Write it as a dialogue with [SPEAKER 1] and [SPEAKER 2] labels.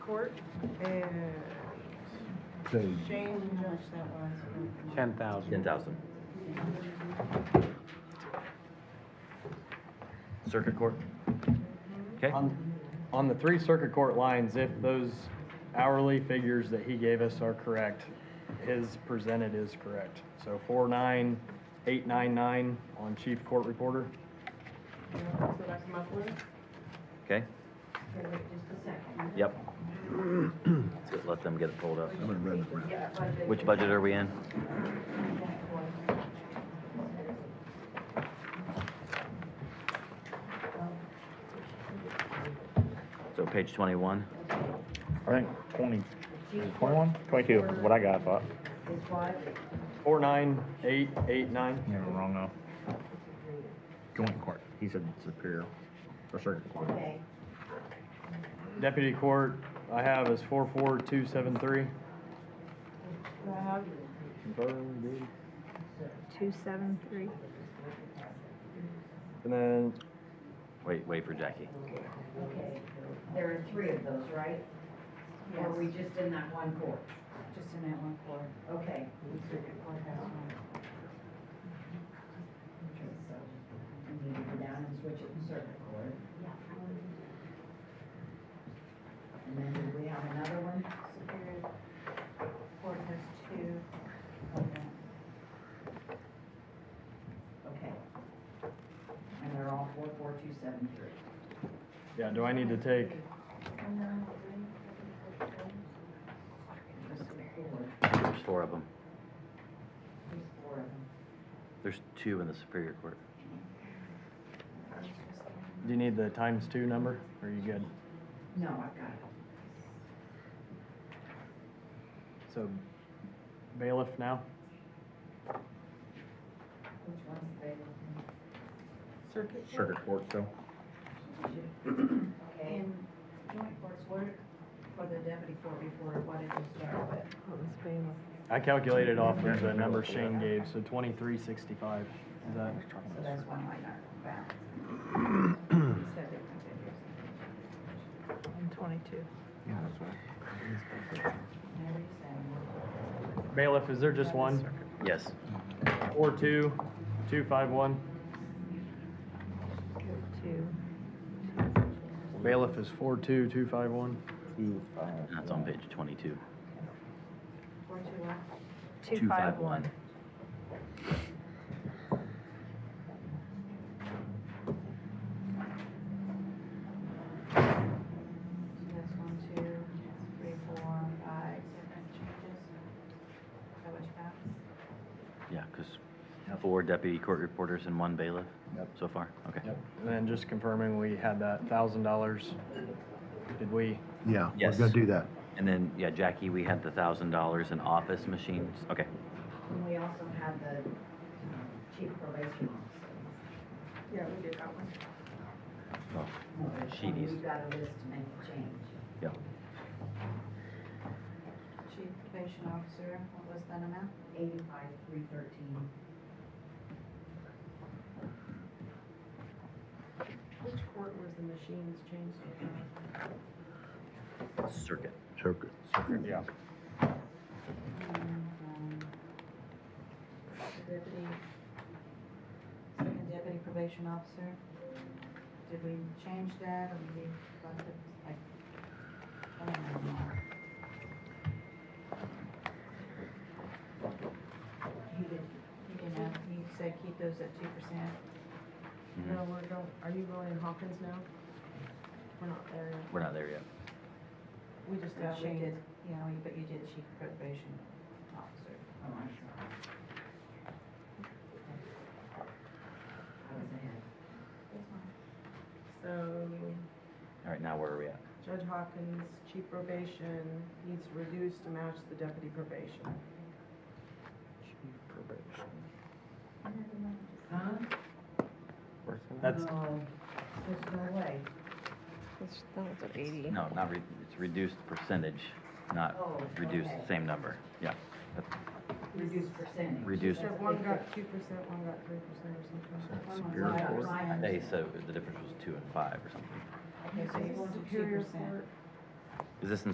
[SPEAKER 1] court and
[SPEAKER 2] Say,
[SPEAKER 1] Shane Judge that was.
[SPEAKER 3] Ten thousand.
[SPEAKER 4] Ten thousand. Circuit court? Okay,
[SPEAKER 5] On, on the three circuit court lines, if those hourly figures that he gave us are correct, his presented is correct. So four nine, eight nine nine on chief court reporter.
[SPEAKER 1] So that's monthly.
[SPEAKER 4] okay,
[SPEAKER 6] Wait just a second.
[SPEAKER 4] yep. Let's get- Let them get it pulled up.
[SPEAKER 2] I'm gonna run it around.
[SPEAKER 6] Yeah, budget.
[SPEAKER 4] Which budget are we in? So page twenty-one,
[SPEAKER 7] I think twenty, twenty-one, twenty-two is what I got, I thought.
[SPEAKER 6] Is what?
[SPEAKER 5] Four nine, eight, eight nine.
[SPEAKER 7] You have it wrong, though. Joint court, he said superior, or circuit court.
[SPEAKER 6] Okay.
[SPEAKER 5] Deputy court I have is four four two seven three.
[SPEAKER 8] Two seven three.
[SPEAKER 5] And then
[SPEAKER 4] wait, wait for Jackie.
[SPEAKER 6] Okay. There are three of those, right? Or are we just in that one court?
[SPEAKER 1] Just in that one court.
[SPEAKER 6] Okay. Okay, so we need to go down and switch it to circuit court. And then do we have another one?
[SPEAKER 1] Superior Court has two.
[SPEAKER 6] Okay. And they're all four, four, two, seven, three.
[SPEAKER 5] Yeah, do I need to take,
[SPEAKER 6] Just four.
[SPEAKER 4] There's four of them.
[SPEAKER 6] There's four of them.
[SPEAKER 4] There's two in the Superior Court.
[SPEAKER 5] do you need the times two number? Are you good?
[SPEAKER 6] No, I've got it.
[SPEAKER 5] So bailiff now?
[SPEAKER 6] Which one's available?
[SPEAKER 1] Circuit.
[SPEAKER 7] Circuit court, so.
[SPEAKER 6] Okay.
[SPEAKER 1] And joint courts, what, for the deputy court before, what did you start with?
[SPEAKER 5] I calculated off of the number Shane gave, so twenty-three sixty-five. Is that,
[SPEAKER 6] So that's one line art balance.
[SPEAKER 1] You said different figures.
[SPEAKER 8] Twenty-two.
[SPEAKER 7] Yeah, that's right.
[SPEAKER 6] Never you say.
[SPEAKER 5] bailiff, is there just one?
[SPEAKER 4] Yes,
[SPEAKER 5] Four two, two five one?
[SPEAKER 8] Two.
[SPEAKER 5] Bailiff is four two, two five one.
[SPEAKER 7] Two, five.
[SPEAKER 4] that's on page twenty-two.
[SPEAKER 1] Four, two, one.
[SPEAKER 8] Two five one.
[SPEAKER 1] So that's one, two, three, four, five different changes. Is that what you got?
[SPEAKER 4] Yeah, because four deputy court reporters and one bailiff so far, okay.
[SPEAKER 5] And then just confirming we had that thousand dollars. Did we?
[SPEAKER 2] Yeah, we're
[SPEAKER 4] Yes.
[SPEAKER 2] gonna do that.
[SPEAKER 4] And then, yeah, Jackie, we had the thousand dollars in office machines, okay.
[SPEAKER 6] And we also have the um, chief probation officer.
[SPEAKER 1] Yeah, we did that one.
[SPEAKER 2] Oh.
[SPEAKER 6] No, there's
[SPEAKER 4] She
[SPEAKER 6] one.
[SPEAKER 4] needs-
[SPEAKER 6] We've got a list to make a change.
[SPEAKER 4] Yeah,
[SPEAKER 1] Chief probation officer, what was that amount?
[SPEAKER 6] Eighty-five, three thirteen.
[SPEAKER 1] Which court was the machines changed to?
[SPEAKER 4] circuit.
[SPEAKER 2] Circuit.
[SPEAKER 7] Yeah.
[SPEAKER 1] And, um, the Deputy, second deputy probation officer, did we change that or did we, left it like, I don't know. He did, he didn't have, he said keep those at two percent.
[SPEAKER 4] Mhm.
[SPEAKER 1] we're going, are you going in Hawkins now? We're not there yet.
[SPEAKER 4] We're not there yet.
[SPEAKER 1] We just did, we did, you know, but you did chief probation officer.
[SPEAKER 6] Oh, I'm sorry. I was ahead.
[SPEAKER 9] So
[SPEAKER 4] All right, now where are we at?
[SPEAKER 9] Judge Hawkins, chief probation needs reduced to match the deputy probation.
[SPEAKER 6] Huh?
[SPEAKER 5] That's,
[SPEAKER 6] Oh, No, There's no way.
[SPEAKER 8] That's, that was at eighty.
[SPEAKER 4] No, not, re- it's reduced percentage,
[SPEAKER 6] Oh,
[SPEAKER 4] not reduced,
[SPEAKER 6] okay.
[SPEAKER 4] same number, yeah.
[SPEAKER 6] Reduced percentage.
[SPEAKER 4] Reduced.
[SPEAKER 9] So one got two percent, one got three percent or something.
[SPEAKER 6] Well,
[SPEAKER 4] Superior
[SPEAKER 6] I-
[SPEAKER 4] Court?
[SPEAKER 6] I
[SPEAKER 4] Hey,
[SPEAKER 6] understand.
[SPEAKER 4] so the difference was two and five or something.
[SPEAKER 1] Okay, so you
[SPEAKER 9] Is
[SPEAKER 1] want to two
[SPEAKER 9] Superior
[SPEAKER 1] percent.
[SPEAKER 9] Court
[SPEAKER 4] Is this in